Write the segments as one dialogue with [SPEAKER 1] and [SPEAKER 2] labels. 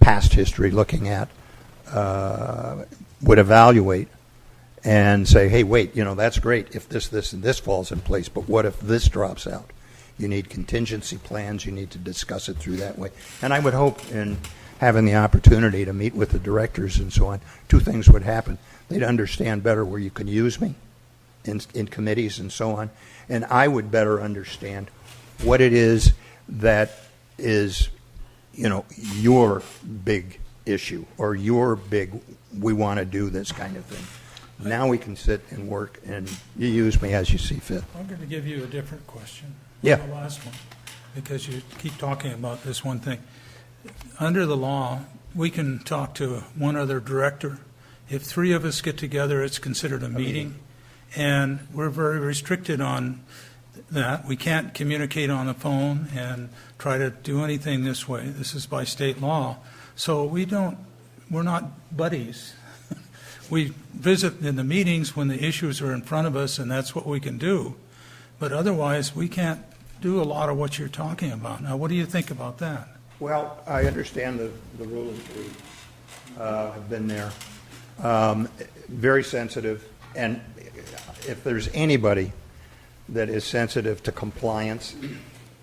[SPEAKER 1] past history looking at, uh, would evaluate and say, hey, wait, you know, that's great if this, this, and this falls in place, but what if this drops out? You need contingency plans, you need to discuss it through that way. And I would hope in having the opportunity to meet with the directors and so on, two things would happen. They'd understand better where you can use me in, in committees and so on, and I would better understand what it is that is, you know, your big issue or your big, we want to do this kind of thing. Now we can sit and work, and you use me as you see fit.
[SPEAKER 2] I'm going to give you a different question.
[SPEAKER 1] Yeah.
[SPEAKER 2] The last one, because you keep talking about this one thing. Under the law, we can talk to one other director. If three of us get together, it's considered a meeting, and we're very restricted on that. We can't communicate on the phone and try to do anything this way. This is by state law. So we don't, we're not buddies. We visit in the meetings when the issues are in front of us, and that's what we can do. But otherwise, we can't do a lot of what you're talking about. Now, what do you think about that?
[SPEAKER 1] Well, I understand the, the rules. We, uh, have been there. Um, very sensitive, and if there's anybody that is sensitive to compliance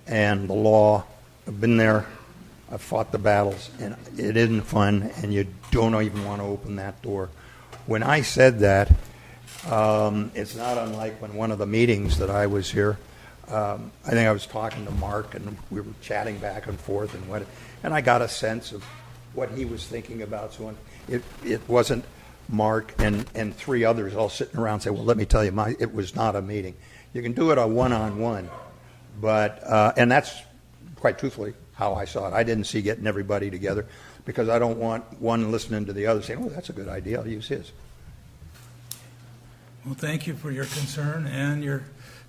[SPEAKER 1] and the law, I've been there, I've fought the battles, and it isn't fun, and you don't even want to open that door. When I said that, um, it's not unlike when one of the meetings that I was here, um, I think I was talking to Mark and we were chatting back and forth and what, and I got a sense of what he was thinking about. So it, it wasn't Mark and, and three others all sitting around saying, well, let me tell you, my, it was not a meeting. You can do it a one-on-one, but, uh, and that's quite truthfully, how I saw it. I didn't see getting everybody together because I don't want one listening to the other saying, oh, that's a good idea, I'll use his.
[SPEAKER 2] Well, thank you for your concern and your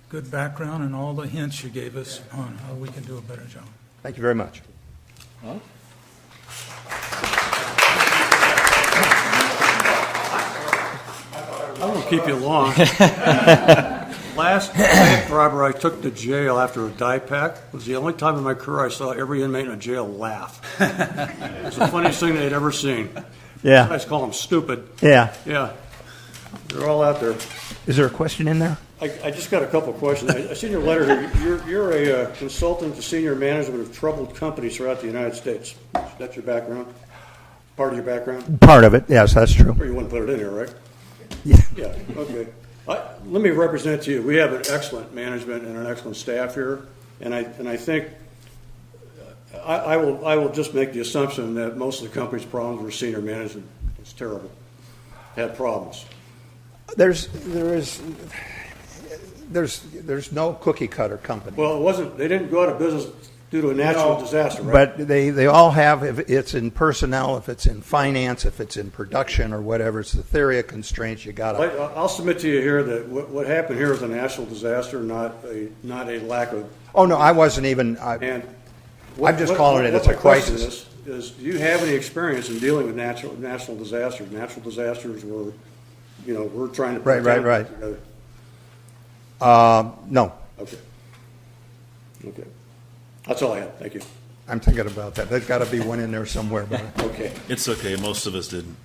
[SPEAKER 2] good background and all the hints you gave us on how we can do a better job.
[SPEAKER 1] Thank you very much.
[SPEAKER 3] I won't keep you long. Last bank robber I took to jail after a die pack was the only time in my career I saw every inmate in a jail laugh. It was the funniest thing they'd ever seen.
[SPEAKER 1] Yeah,
[SPEAKER 3] Guys call them stupid.
[SPEAKER 1] yeah.
[SPEAKER 3] Yeah, they're all out there.
[SPEAKER 1] Is there a question in there?
[SPEAKER 3] I, I just got a couple of questions. I, I seen your letter here. You're, you're a uh, consultant to senior management of troubled companies throughout the United States. That's your background? Part of your background?
[SPEAKER 1] Part of it, yes, that's true.
[SPEAKER 3] Or you wouldn't put it in here, right?
[SPEAKER 1] Yeah.
[SPEAKER 3] okay. I, let me represent to you, we have an excellent management and an excellent staff here, and I, and I think, uh, I, I will, I will just make the assumption that most of the company's problems were senior management. It's terrible. Had problems.
[SPEAKER 1] There's, there is, there's, there's no cookie cutter company.
[SPEAKER 3] Well, it wasn't, they didn't go out of business due to a natural disaster, right?
[SPEAKER 1] But they, they all have, if it's in personnel, if it's in finance, if it's in production or whatever, it's the theory of constraints, you
[SPEAKER 3] But
[SPEAKER 1] gotta.
[SPEAKER 3] I- I'll submit to you here that what, what happened here was a natural disaster, not a, not a lack of
[SPEAKER 1] Oh, no, I wasn't even, I,
[SPEAKER 3] And. what-
[SPEAKER 1] I'm just
[SPEAKER 3] what-
[SPEAKER 1] calling it
[SPEAKER 3] what
[SPEAKER 1] it's a
[SPEAKER 3] my question
[SPEAKER 1] crisis.
[SPEAKER 3] is- Is, do you have any experience in dealing with natural, natural disasters? Natural disasters were, you know, we're trying to.
[SPEAKER 1] Right, right, right.
[SPEAKER 3] protect-
[SPEAKER 1] no,
[SPEAKER 3] Okay. Okay. That's all I have. Thank you.
[SPEAKER 1] I'm thinking about that. There's gotta be one in there somewhere, but.
[SPEAKER 3] Okay.
[SPEAKER 4] It's okay, most of us didn't.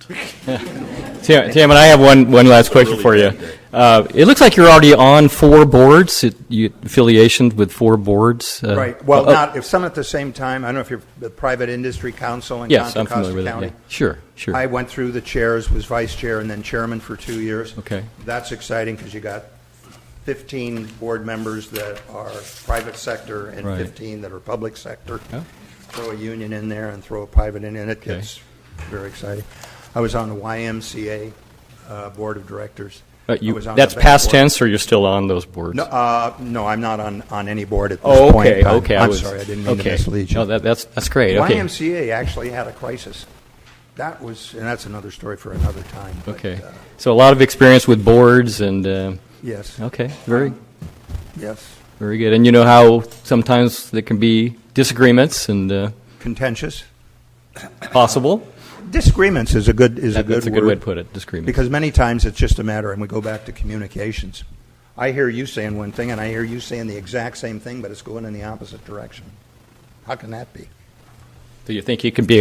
[SPEAKER 5] Tam, Tam, and I have one, one last question for you. Uh, it looks like you're already on four boards, it- you, affiliation with four boards. uh,
[SPEAKER 1] Right, well,
[SPEAKER 5] oh,
[SPEAKER 1] not, if some at the same time, I don't know if you're the private industry council in
[SPEAKER 5] Yes,
[SPEAKER 1] Contra
[SPEAKER 5] I'm familiar
[SPEAKER 1] Costa
[SPEAKER 5] with it, yeah.
[SPEAKER 1] County.
[SPEAKER 5] Sure, sure.
[SPEAKER 1] I went through the chairs, was vice chair, and then chairman for two years.
[SPEAKER 5] Okay.
[SPEAKER 1] That's exciting because you got 15 board members that are private sector and
[SPEAKER 5] Right.
[SPEAKER 1] 15 that are public sector.
[SPEAKER 5] Yeah.
[SPEAKER 1] Throw a union in there and throw a private in, and it
[SPEAKER 5] Okay.
[SPEAKER 1] gets very exciting. I was on the YMCA uh, Board of Directors.
[SPEAKER 5] uh,
[SPEAKER 1] I
[SPEAKER 5] you-
[SPEAKER 1] was on
[SPEAKER 5] that's
[SPEAKER 1] the bank
[SPEAKER 5] past
[SPEAKER 1] board.
[SPEAKER 5] tense, or you're still on those boards?
[SPEAKER 1] No, uh, no, I'm not on, on any board at
[SPEAKER 5] Oh,
[SPEAKER 1] this point.
[SPEAKER 5] okay,
[SPEAKER 1] in time.
[SPEAKER 5] okay.
[SPEAKER 1] I'm
[SPEAKER 5] was-
[SPEAKER 1] sorry, I didn't mean to
[SPEAKER 5] okay.
[SPEAKER 1] mislead you.
[SPEAKER 5] No, that, that's, that's great, okay.
[SPEAKER 1] YMCA actually had a crisis. That was, and that's another story for another time. but,
[SPEAKER 5] Okay,
[SPEAKER 1] uh,
[SPEAKER 5] so a lot of experience with boards and, uh,
[SPEAKER 1] Yes,
[SPEAKER 5] okay, very,
[SPEAKER 1] yes.
[SPEAKER 5] very good. And you know how sometimes there can be disagreements and, uh,
[SPEAKER 1] Contentious.
[SPEAKER 5] possible?
[SPEAKER 1] Disagreements is a good, is a
[SPEAKER 5] That-
[SPEAKER 1] good word.
[SPEAKER 5] That's a good way to put it, disagreements.
[SPEAKER 1] Because many times it's just a matter, and we go back to communications. I hear you saying one thing, and I hear you saying the exact same thing, but it's going in the opposite direction. How can that be?
[SPEAKER 5] Do you think you can be